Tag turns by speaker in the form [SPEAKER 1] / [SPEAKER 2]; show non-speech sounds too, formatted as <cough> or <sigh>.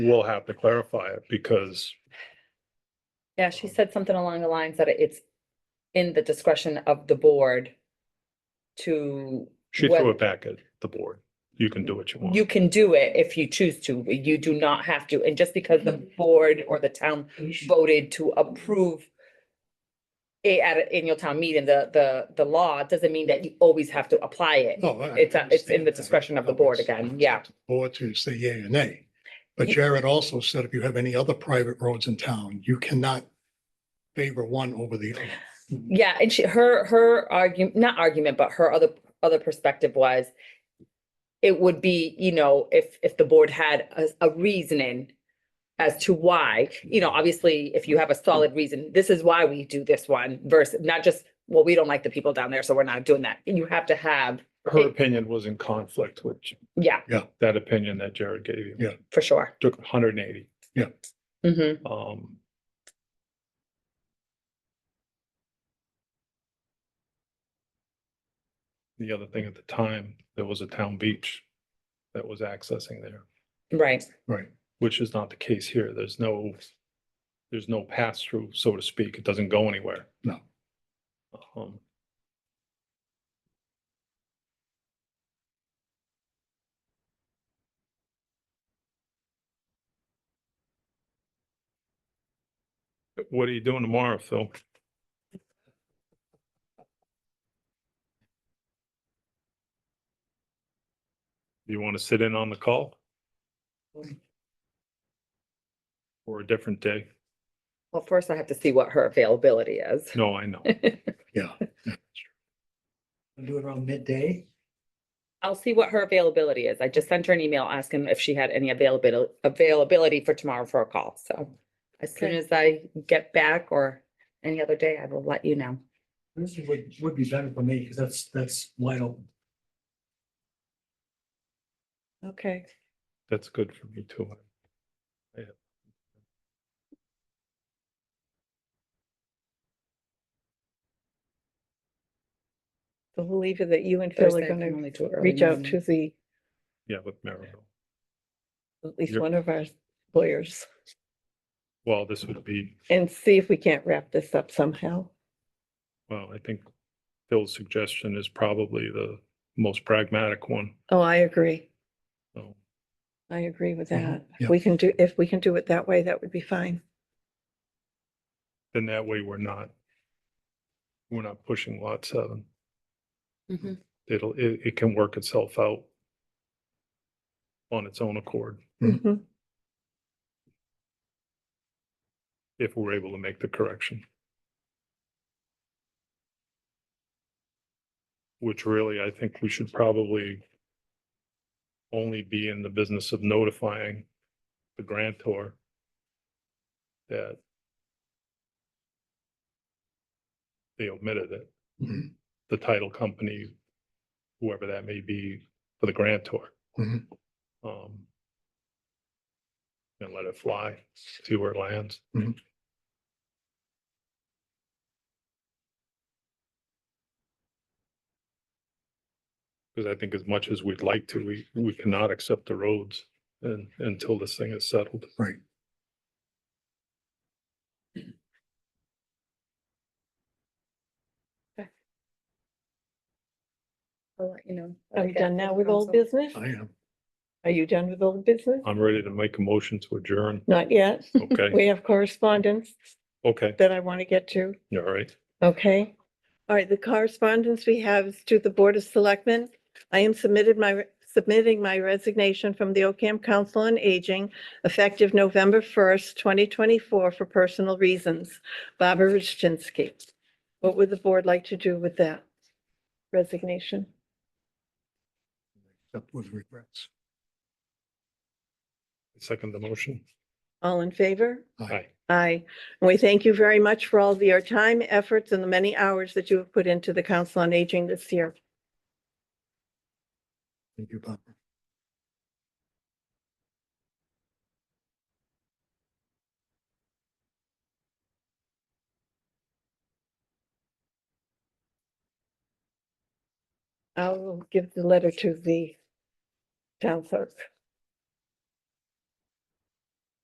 [SPEAKER 1] We'll have to clarify it because,
[SPEAKER 2] Yeah, she said something along the lines that it's in the discretion of the board to,
[SPEAKER 1] she
[SPEAKER 2] Well-
[SPEAKER 1] threw it back at the board. You can do what you want.
[SPEAKER 2] you can do it if you choose to, you do not have to. And just because the board or the town voted to approve it at an annual town meeting, the, the, the law, doesn't mean that you always have to apply it.
[SPEAKER 3] No, Oh, I- I
[SPEAKER 2] It's, a- it's in
[SPEAKER 3] understand
[SPEAKER 2] the
[SPEAKER 3] that.
[SPEAKER 2] discretion of the board
[SPEAKER 3] It's-
[SPEAKER 2] again,
[SPEAKER 3] it's
[SPEAKER 2] yeah.
[SPEAKER 3] up to the Board to say yea or nay. But
[SPEAKER 2] Ye-
[SPEAKER 3] Jared also said if you have any other private roads in town, you cannot favor one over the other.
[SPEAKER 2] Yeah, and she, her, her argument, not argument, but her other, other perspective was it would be, you know, if, if the board had a, a reasoning as to why, you know, obviously, if you have a solid reason, this is why we do this one versus not just, well, we don't like the people down there, so we're not doing that. And you have to have,
[SPEAKER 1] Her opinion was in conflict with
[SPEAKER 2] yeah,
[SPEAKER 1] that opinion that Jared gave you.
[SPEAKER 3] Yeah.
[SPEAKER 2] for sure.
[SPEAKER 1] Took hundred and eighty.
[SPEAKER 2] hmm
[SPEAKER 1] Um, the other thing at the time, there was a town beach that was accessing there,
[SPEAKER 2] right.
[SPEAKER 3] Right.
[SPEAKER 1] which is not the case here. There's no, there's no pass through, so to speak. It doesn't go anywhere.
[SPEAKER 3] No.
[SPEAKER 1] Um, What are you doing tomorrow, Phil? You want to sit in on the call? Or a different day?
[SPEAKER 2] Well, first I have to see what her availability is.
[SPEAKER 1] No, I know.
[SPEAKER 3] Yeah,
[SPEAKER 4] Do it around midday.
[SPEAKER 2] I'll see what her availability is. I just sent her an email asking if she had any availability, availability for tomorrow for a call, so. As soon
[SPEAKER 4] Okay.
[SPEAKER 2] as I get back or any other day, I will let you know.
[SPEAKER 4] This would, would be better for me because that's, that's wide open.
[SPEAKER 2] Okay.
[SPEAKER 1] That's good for me too. Yeah.
[SPEAKER 5] I believe that you and Phil are
[SPEAKER 2] Thursday, I can
[SPEAKER 5] gonna
[SPEAKER 2] only do it early
[SPEAKER 5] reach out
[SPEAKER 2] morning.
[SPEAKER 5] to the,
[SPEAKER 1] Yeah, with Maribel.
[SPEAKER 5] at least
[SPEAKER 1] You're-
[SPEAKER 5] one of our lawyers
[SPEAKER 1] Well, this would be,
[SPEAKER 5] and see if we can't wrap this up somehow.
[SPEAKER 1] well, I think Phil's suggestion is probably the most pragmatic one.
[SPEAKER 5] Oh, I agree.
[SPEAKER 1] So
[SPEAKER 5] I agree with
[SPEAKER 3] Mhm.
[SPEAKER 5] that.
[SPEAKER 3] Yeah.
[SPEAKER 5] If we can do, if we can do it that way, that would be fine.
[SPEAKER 1] then that way we're not, we're not pushing lot seven.
[SPEAKER 2] Mhm.
[SPEAKER 1] It'll, it, it can work itself out on its own accord
[SPEAKER 3] Mhm.
[SPEAKER 5] Mhm.
[SPEAKER 1] if we're able to make the correction. Which really, I think we should probably only be in the business of notifying the grantor that they omitted it.
[SPEAKER 3] Mhm.
[SPEAKER 1] The title company, whoever that may be, for the grantor.
[SPEAKER 3] Mhm.
[SPEAKER 1] Um, And let it fly, see where it lands. Because I think as much as we'd like to, we, we cannot accept the roads and, until this thing is settled.
[SPEAKER 3] Right.
[SPEAKER 2] I'll let you know.
[SPEAKER 5] Are you done now with old business?
[SPEAKER 3] I am.
[SPEAKER 5] Are you done with old business?
[SPEAKER 1] I'm ready to make a motion to adjourn.
[SPEAKER 3] <laughs>
[SPEAKER 5] Not yet.
[SPEAKER 1] Okay,
[SPEAKER 5] We have correspondence
[SPEAKER 1] okay,
[SPEAKER 5] that I want to get to.
[SPEAKER 1] all right.
[SPEAKER 5] Okay. All right, the correspondence we have is to the Board of Selectmen. I am submitted my, submitting my resignation from the Ocam Council on Aging effective November 1st, 2024 for personal reasons. Barbara Rutchinski. What would the board like to do with that resignation?
[SPEAKER 3] Except with regrets.
[SPEAKER 1] Second the motion.
[SPEAKER 5] All in favor?
[SPEAKER 3] I
[SPEAKER 1] Aye.
[SPEAKER 5] Aye. And we thank you very much for all of your time, efforts, and the many hours that you have put into the Council on Aging this year.
[SPEAKER 3] Thank you, Bob.
[SPEAKER 5] I will give the letter to the town clerk.